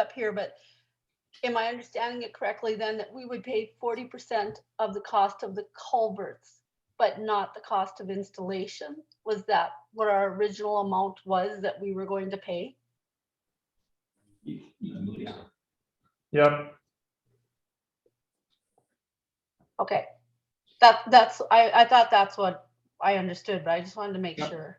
up here, but am I understanding it correctly then that we would pay forty percent of the cost of the culverts, but not the cost of installation? Was that what our original amount was that we were going to pay? Yeah. Yep, Okay. That, that's, I, I thought that's what I understood, but I just wanted to make Yep. sure.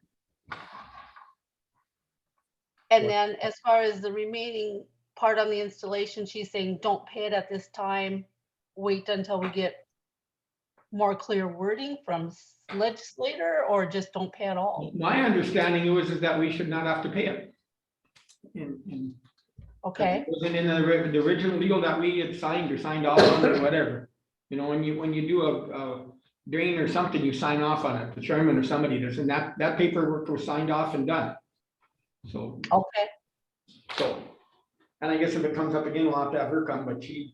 And What- then as far as the remaining part on the installation, she's saying, don't pay it at this time. Wait until we get more clear wording from s- legislator or just don't pay at all. My understanding was is that we should not have to pay it. And, and Okay, It wasn't in the, ri- the original deal that we had signed or signed off on or whatever. You know, when you, when you do a, a drain or something, you sign off on it, the chairman or somebody does, and that, that paperwork was signed off and done. So, okay, so, and I guess if it comes up again, we'll have to have her come, but she,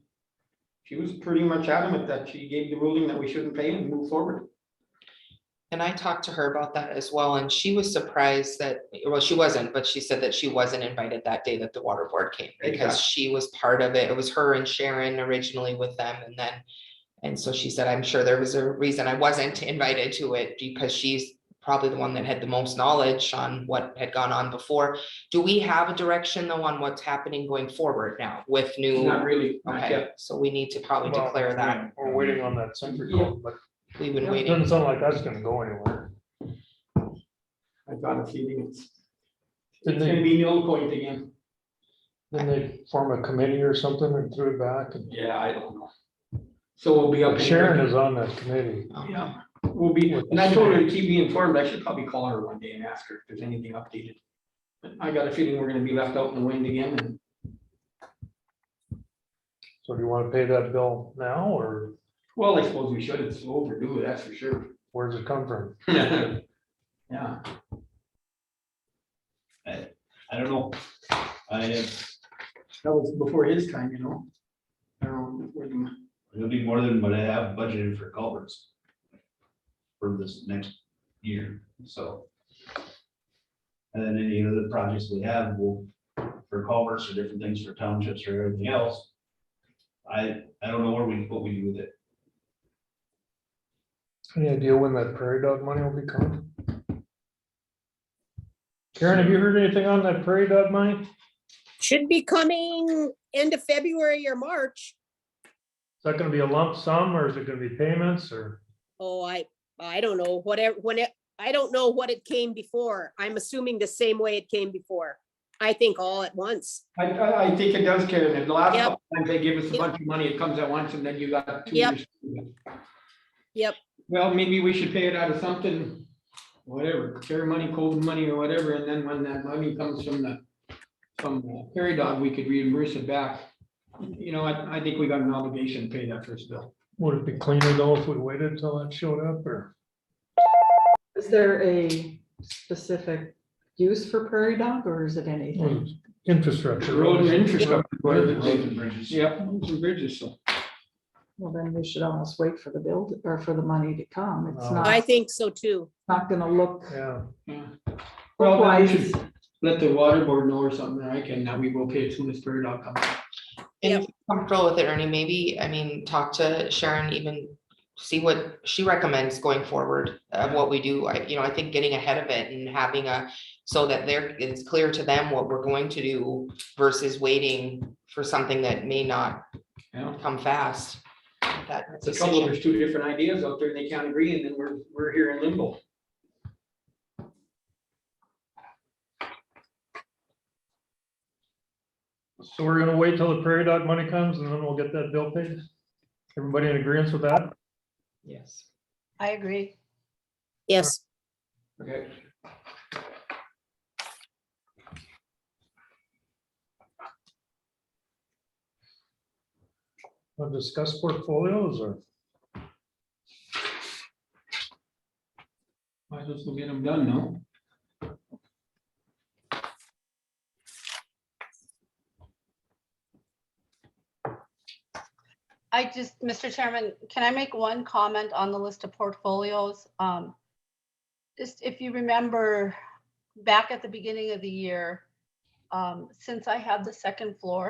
she was pretty much adamant that she gave the ruling that we shouldn't pay and move forward. And I talked to her about that as well, and she was surprised that, well, she wasn't, but she said that she wasn't invited that day that the water board came. Because she was part of it. It was her and Sharon originally with them and then. And so she said, I'm sure there was a reason I wasn't invited to it because she's probably the one that had the most knowledge on what had gone on before. Do we have a direction though on what's happening going forward now with Not new? really, not Mm, Okay, yet. so we need to probably Well, declare that. we're waiting on that century code, but We've been it waiting. doesn't sound like that's gonna go anywhere. I got a feeling it's, Didn't it's gonna they, be null point again. didn't they form a committee or something and threw it back? And Yeah, I don't know. So we'll be up. in- Sharon is on that committee. Um, Yeah, we'll be, and I told her to keep me informed. I should probably call her one day and ask her if there's anything updated. But I got a feeling we're gonna be left out in the wind again and So do you wanna pay that bill now or well, I suppose we should. It's overdue, that's for sure. where's it come from? Yeah. I don't know. I, That was before his time, you know? I don't know, where the- it'll be more than what I have budgeted for culverts. For this next year, so. And then any other projects we have will, for culverts or different things for townships or everything else. I, I don't know where we, what we do with it. Any idea when that prairie dog money will be coming? Karen, have you heard anything on that prairie dog money? Is Should be coming end of February or March. that gonna be a lump sum or is it gonna be payments or? Oh, I, I don't know, whatever, when it, I don't know what it came before. I'm assuming the same way it came before. I think all at once. I, I, I think it does, Karen. And the last Yep. couple times they give us a Yep. bunch of money, it comes at once and then you got two Yep. years. to do it. Yep. Well, maybe we should pay it out of something, whatever, care money, cold money or whatever, and then when that money comes from the, from the Prairie Dog, we could reimburse it back. You know, I, I think we got an obligation to pay that first bill. Would it be cleaner though if we waited until that showed up or? Is there a specific use for prairie dog or is it anything? Hmm, Infrastructure. Road and infrastructure. Roads and bridges. Yep, roads and bridges, so. Well, then we should almost wait for the build or for the money to come. It's Oh. I not, think so too. not gonna look. Yeah, yeah. Well, then we wise. should let the water board know or something, I can, that we will pay as soon as Prairie Dog comes. And Yep. if you're comfortable with it, Ernie, maybe, I mean, talk to Sharon, even see what she recommends going forward of what we do. I, you know, I think getting ahead of it and having a, so that there, it's clear to them what we're going to do versus waiting for something that may not Yeah. come fast. That The trouble, decision. there's two different ideas out there and they can't agree and then we're, we're here in limbo. so we're gonna wait till the prairie dog money comes and then we'll get that bill paid. Everybody in agreement with that? Yes. I agree. Yes, Okay. We'll discuss portfolios or? Might as well get them done, no? I just, Mr. Chairman, can I make one comment on the list of portfolios? Um, Just if you remember, back at the beginning of the year, um, since I have the second floor,